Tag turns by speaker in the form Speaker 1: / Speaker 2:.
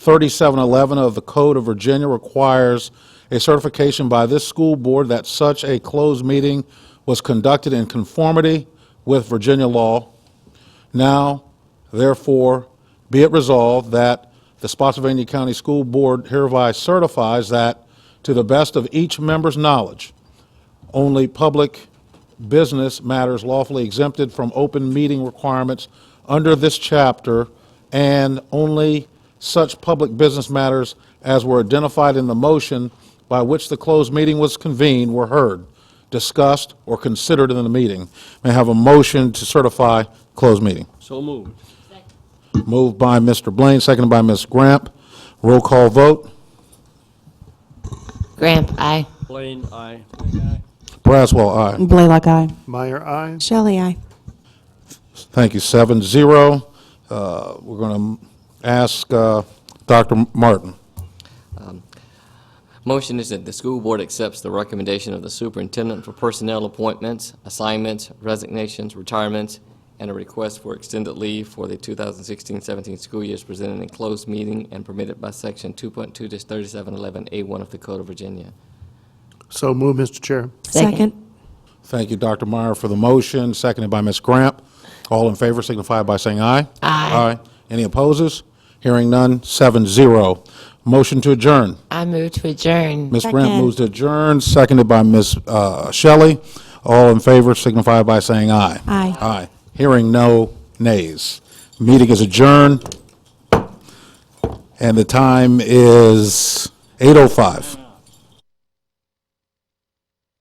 Speaker 1: 3711 of the Code of Virginia requires a certification by this school board that such a closed meeting was conducted in conformity with Virginia law. Now, therefore, be it resolved that the Spotsylvania County School Board hereby certifies that, to the best of each member's knowledge, only public business matters lawfully exempted from open meeting requirements under this chapter, and only such public business matters as were identified in the motion by which the closed meeting was convened were heard, discussed, or considered in the meeting. May I have a motion to certify closed meeting?
Speaker 2: So moved.
Speaker 1: Moved by Mr. Blaine, seconded by Ms. Gramp. Roll call vote.
Speaker 3: Gramp, aye.
Speaker 2: Blaine, aye.
Speaker 1: Braswell, aye.
Speaker 4: Blaylock, aye.
Speaker 5: Meyer, I.
Speaker 4: Shelley, aye.
Speaker 1: Thank you, seven zero. Uh, We're going to ask uh, Dr. Martin.
Speaker 6: Motion is that the school board accepts the recommendation of the superintendent for personnel appointments, assignments, resignations, retirements, and a request for extended leave for the 2016-17 school year is presented in closed meeting and permitted by Section 2.2-3711A1 of the Code of Virginia.
Speaker 5: So move, Mr. Chair.
Speaker 4: Second.
Speaker 1: Thank you, Dr. Meyer, for the motion, seconded by Ms. Gramp. All in favor signify by saying aye. Aye. Any opposes? Hearing none, seven zero. Motion to adjourn.
Speaker 3: I move to adjourn.
Speaker 1: Ms. Gramp
Speaker 4: Second.
Speaker 1: moves to adjourn, seconded by Ms. uh, Shelley. All in favor signify by saying aye.
Speaker 4: Aye.
Speaker 1: Aye. Hearing no nays. Meeting is oh adjourned, and the time is 8:05.